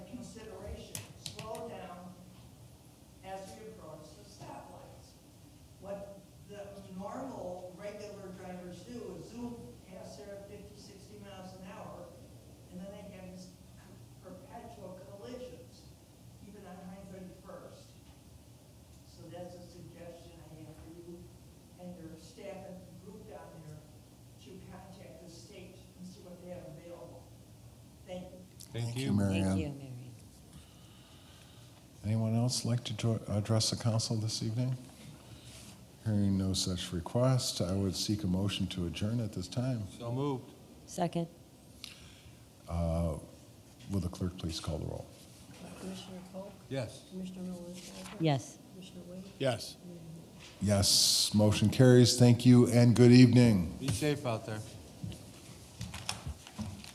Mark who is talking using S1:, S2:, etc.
S1: Thank
S2: you,
S1: you.
S2: Mary
S3: Thank
S2: Ann.
S3: you, Mary. Ann.
S2: Anyone else like to jo- address the council this evening? Hearing no such request, I would seek a motion to adjourn at this time.
S1: So moved.
S3: Second.
S2: Uh, Will the clerk please call the roll?
S4: Commissioner Polk,
S1: Yes.
S4: Commissioner Nolasco,
S3: Yes.
S4: Commissioner Wade.
S1: Yes.
S2: Yes, motion carries. Thank you and good evening.
S1: Be safe out there.